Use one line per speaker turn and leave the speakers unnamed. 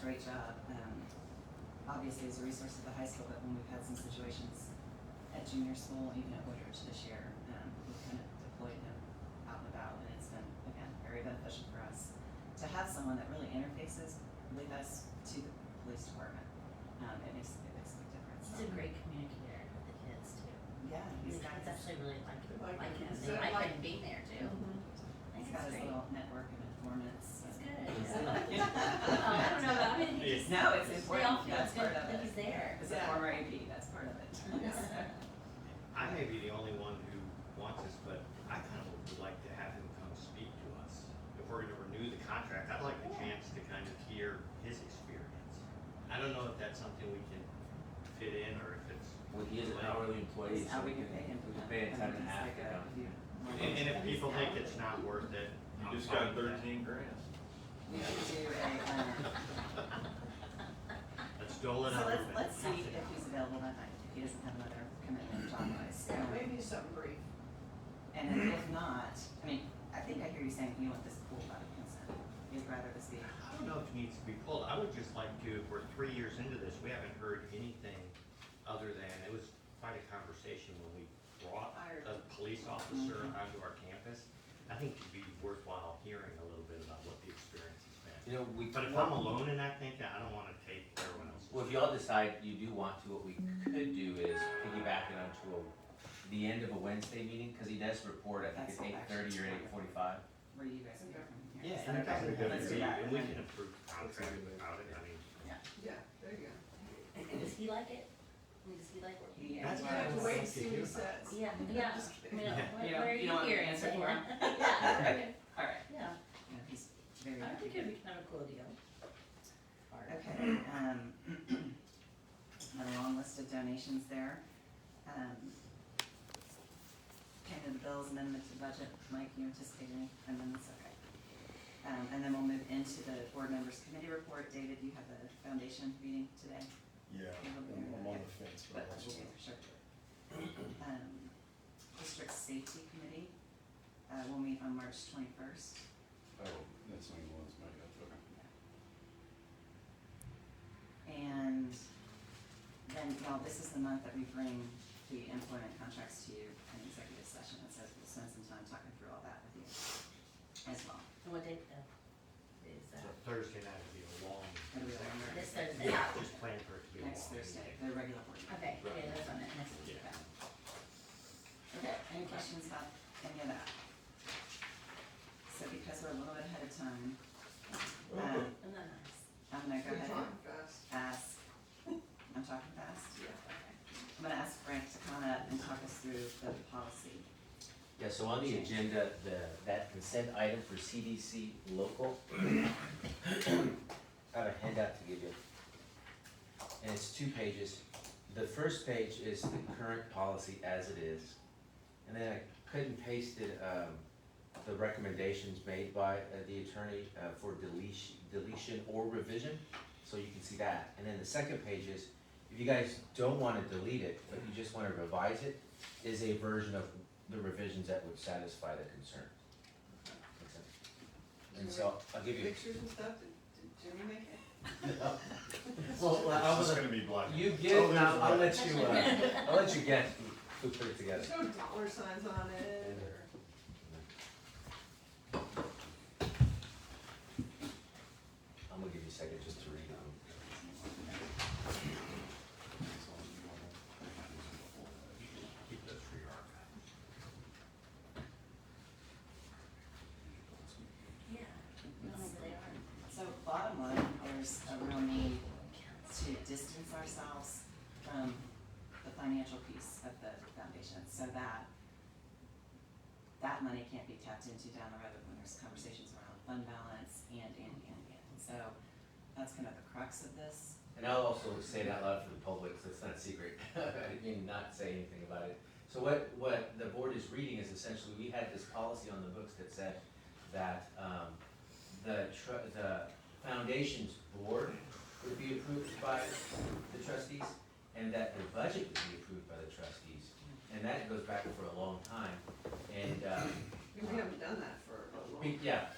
great job, um, obviously as a resource to the high school, but when we've had some situations at junior school, even at Woodridge this year, um, we kind of deployed him out and about, and it's been, again, very beneficial for us to have someone that really interfaces with us to the police department. Um, it makes, it makes a big difference.
He's a great communicator with the kids too.
Yeah,
The
he's got
kids
his,
actually really like him,
Like
like
him.
him,
So,
they like
like-
him being there too. I
he's
think
got
it's
his
great.
little network of informants.
It's
and-
good. Oh, I don't know about him, he just,
No, it's
they all
important,
feel
that's
good
part of
that
it.
he's there.
As a
Yeah.
former AP, that's part of it.
I may be the only one who wants this, but I kind of would like to have him come speak to us. If we're gonna renew the contract, I'd like the chance to kind of hear his experience. I don't know if that's something we can fit in or if it's.
Well, he is an hourly employee,
It's
so
how we can pay him.
We
for
can
that.
pay him
I
time
mean,
and a
it's
half
like
to
a-
come.
you-
And, and if people think it's not worth it,
You
I'm
just
fine
got
with that.
thirteen grand.
We should do a, um,
Let's dole it
so
out. a
let's,
bit.
let's see if he's available that night, if he doesn't have another commitment job wise.
Yeah, maybe something brief.
And then if not, I mean, I think I hear you saying you want this pulled by consent, you'd rather this be,
I don't know if it needs to be pulled, I would just like to, if we're three years into this, we haven't heard anything other than, it was quite a conversation when we brought a police officer
Mm-hmm.
onto our campus. I think it'd be worthwhile hearing a little bit about what the experience has been.
You know, we.
But if
well,
I'm alone in that thing, then I don't wanna take everyone else's.
Well, if y'all decide you do want to, what we could do is piggyback it onto a, the end of a Wednesday meeting, cause he does report, I think
That's
it's eight thirty or
actually-
eight forty-five.
where you guys would go from here.
Yeah,
Is
and
that
that's a
okay?
good
Let's do
idea,
that.
and we can approve contract without it, I mean,
Yeah, there you go.
Does he like it? I mean, Does he like what you do?
Yeah.
that's
You
what I
have to
would
wait and
like to
see what he
hear about.
says.
Yeah,
I'm
yeah.
just
I
kidding.
mean, what,
Yeah.
You
what
don't-
are
you
you
don't want the
hearing?
answer
Like,
for him?
yeah. Yeah,
All right,
yeah.
yeah, he's very.
I
happy.
think it'd be kind of a cool deal.
Okay, um, had a long list of donations there. Um, Payment of the bills, amendment to budget, Mike, you anticipate any amendments, okay. Um, and then we'll move into the board members committee report, David, you have a foundation meeting today,
Yeah,
I'm- I'm on
the fence,
but I will be there for sure. Um, district safety committee, uh, will meet on March twenty-first.
Oh, that's only one's made up, okay.
And then, well, this is the month that we bring the employment contracts to you in executive session, and so we'll spend some time talking through all that with you as well.
And what day, uh, is
So
that?
Thursday night would be a long.
It'll be a long night.
This Thursday?
Yeah, just plan for it to be a long.
Next Thursday,
meeting.
the regular board. meeting.
Okay, okay, that's on it, next week.
Yeah.
Okay, any questions about any of that? So because we're a little bit ahead of time,
Oh.
um,
Isn't that nice?
I'm gonna go
You're
ahead and
talking fast.
ask, I'm talking fast?
Yeah.
I'm gonna ask Frank to come up and talk us through the policy.
Yeah, so on the agenda, the, that consent item for CDC local, I have a handout to give you. And it's two pages. The first page is the current policy as it is. And then I cut and pasted, um, the recommendations made by uh, the attorney, uh, for deletion, deletion or revision, so you can see that. And then the second page is, if you guys don't wanna delete it, but you just wanna revise it, is a version of the revisions that would satisfy the concern. Makes sense? And so, I'll give you,
Pictures and stuff, did, did Jimmy make it?
well, I
It's
was,
just gonna be black. and
you
white.
get,
Oh, there's
I'll, I'll
red.
let you, uh, I'll let you guess who who put it together.
There's no dollar signs on it or?
I'm gonna give you a second just to read um, them.
Keep those for your archive.
Yeah, no, they are.
So bottom line, there's a real need to distance ourselves from the financial piece of the foundation, so that that money can't be tapped into down the road when there's conversations around fund balance and, and, and, and. So that's kind of the crux of this.
And I'll also say it out loud for the public, so it's not secret, I mean, not say anything about it. So what, what the board is reading is essentially, we had this policy on the books that said that, um, the tr- the foundation's board would be approved by the trustees, and that the budget would be approved by the trustees. And that goes back for a long time, and, uh,
We haven't done that for a long time.
we- yeah,